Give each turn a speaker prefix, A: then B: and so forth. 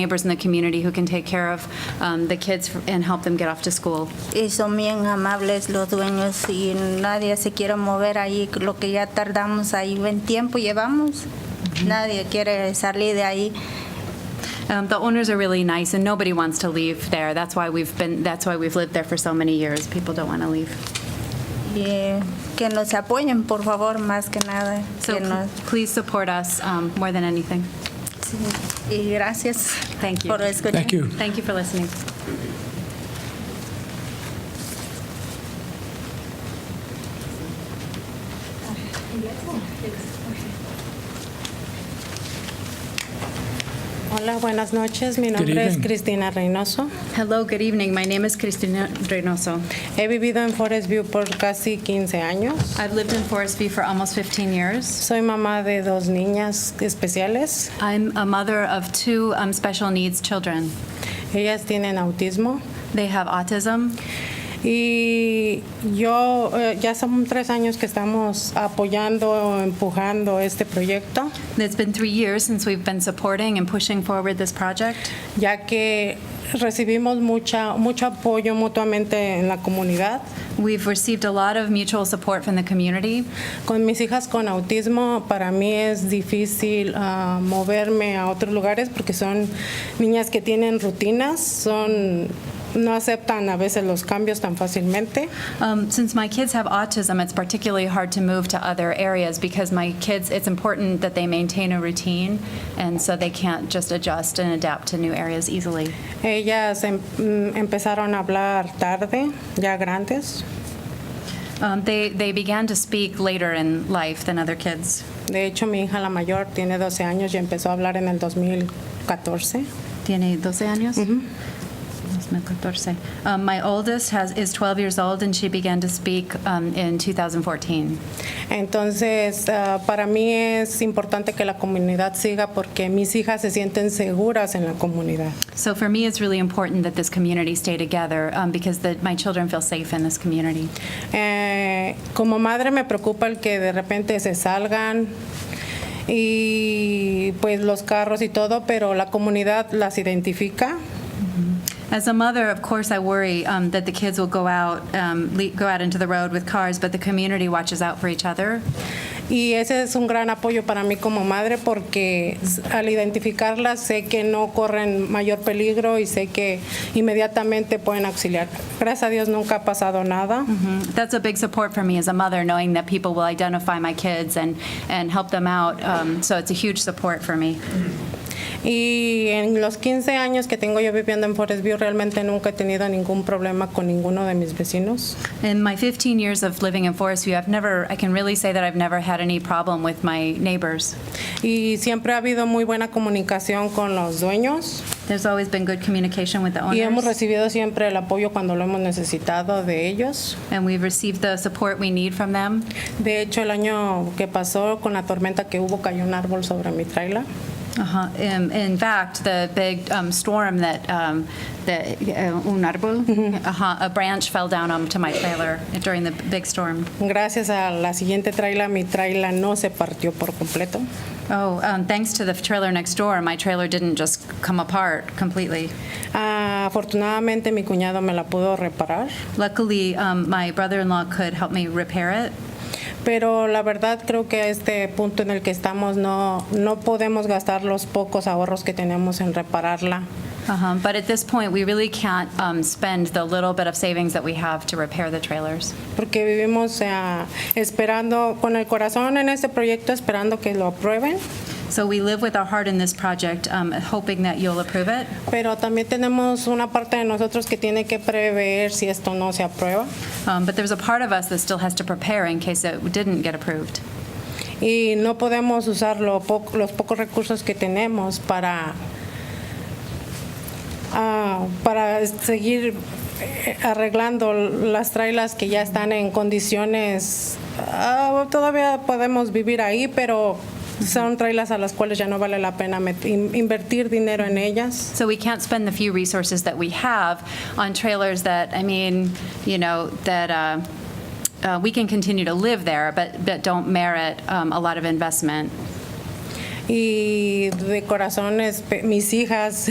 A: neighbors in the community who can take care of um, the kids and help them get off to school.
B: Y son bien amables los dueños y nadie se quiere mover ahí, lo que ya tardamos ahí, buen tiempo llevamos. Nadie quiere salir de ahí.
A: Um, The owners are really nice, and nobody wants to leave there. That's why we've been, that's why we've lived there for so many years. People don't want to leave.
B: Y eh, que nos apoyen, por favor, más que nada.
A: So
B: que nos-
A: please support us um, more than anything.
B: sí. Y gracias
A: Thank you.
B: por escuchar.
C: Thank you.
A: Thank you for listening.
D: Hola, buenas noches. Mi
C: Good
D: nombre es
C: evening.
D: Cristina Reynoso.
A: Hello, good evening. My name is Cristina Reynoso.
D: He vivido en Forest View por casi 15 años.
A: I've lived in Forest View for almost 15 years.
D: Soy mamá de dos niñas especiales.
A: I'm a mother of two um, special needs children.
D: Ellas tienen autismo.
A: They have autism,
D: Y yo, eh, ya son tres años que estamos apoyando o empujando este proyecto,
A: It's been three years since we've been supporting and pushing forward this project.
D: ya que recibimos mucha, mucho apoyo mutuamente en la comunidad.
A: We've received a lot of mutual support from the community.
D: Con mis hijas con autismo, para mí es difícil ah, moverme a otros lugares porque son niñas que tienen rutinas, son no aceptan a veces los cambios tan fácilmente.
A: Um, since my kids have autism, it's particularly hard to move to other areas because my kids, it's important that they maintain a routine, and so they can't just adjust and adapt to new areas easily.
D: Ellas em- mm, empezaron a hablar tarde, ya grandes.
A: Um, they, they began to speak later in life than other kids.
D: De hecho, mi hija la mayor tiene 12 años y empezó a hablar en el 2014.
A: Tiene 12 años? Mm-hmm. Um, my oldest has, is 12 years old, and she began to speak um, in 2014.
D: Entonces, ah, para mí es importante que la comunidad siga porque mis hijas se sienten seguras en la comunidad.
A: So for me, it's really important that this community stay together um, because the, my children feel safe in this community.
D: Eh, como madre me preocupa el que de repente se salgan y pues los carros y todo, pero la comunidad las identifica.
A: As a mother, of course, I worry um, that the kids will go out, um, le- go out into the road with cars, but the community watches out for each other.
D: Y ese es un gran apoyo para mí como madre porque s- al identificarlas sé que no corren mayor peligro y sé que inmediatamente pueden auxiliar. Gracias a Dios nunca ha pasado nada.
A: Mm, That's a big support for me as a mother, knowing that people will identify my kids and, and help them out. Um, so it's a huge support for me.
D: Y en los 15 años que tengo yo viviendo en Forest View realmente nunca he tenido ningún problema con ninguno de mis vecinos.
A: In my 15 years of living in Forest View, I've never, I can really say that I've never had any problem with my neighbors.
D: Y siempre ha habido muy buena comunicación con los dueños
A: There's always been good communication with the
D: y hemos
A: owners,
D: recibido siempre el apoyo cuando lo hemos necesitado de ellos.
A: and we've received the support we need from them.
D: De hecho, el año que pasó con la tormenta que hubo cayó un árbol sobre mi trailer.
A: Uh-huh. Um, in fact, the big um, storm that um, the uh, un arbol, uh-huh, a branch fell down onto my trailer during the big storm.
D: Gracias a la siguiente trailer, mi trailer no se partió por completo.
A: Oh, um, thanks to the trailer next door, my trailer didn't just come apart completely.
D: Ah, afortunadamente, mi cuñado me la pudo reparar,
A: Luckily, um, my brother-in-law could help me repair it.
D: pero la verdad creo que a este punto en el que estamos no, no podemos gastar los pocos ahorros que tenemos en repararla.
A: Uh-huh. But at this point, we really can't um, spend the little bit of savings that we have to repair the trailers.
D: porque vivimos eh, esperando con el corazón en este proyecto, esperando que lo aprueben,
A: So we live with our heart in this project, um, hoping that you'll approve it.
D: pero también tenemos una parte de nosotros que tiene que prever si esto no se aprueba.
A: Um, But there's a part of us that still has to prepare in case it didn't get approved.
D: Y no podemos usar lo poco- los pocos recursos que tenemos para, ah, para seguir eh, arreglando las trailas que ya están en condiciones, ah, todavía podemos vivir ahí, pero son trailas a las cuales ya no vale la pena met- in- invertir dinero en ellas.
A: So we can't spend the few resources that we have on trailers that, I mean, you know, that uh, uh, we can continue to live there, but but don't merit um, a lot of investment.
D: y de corazón, espe- mis hijas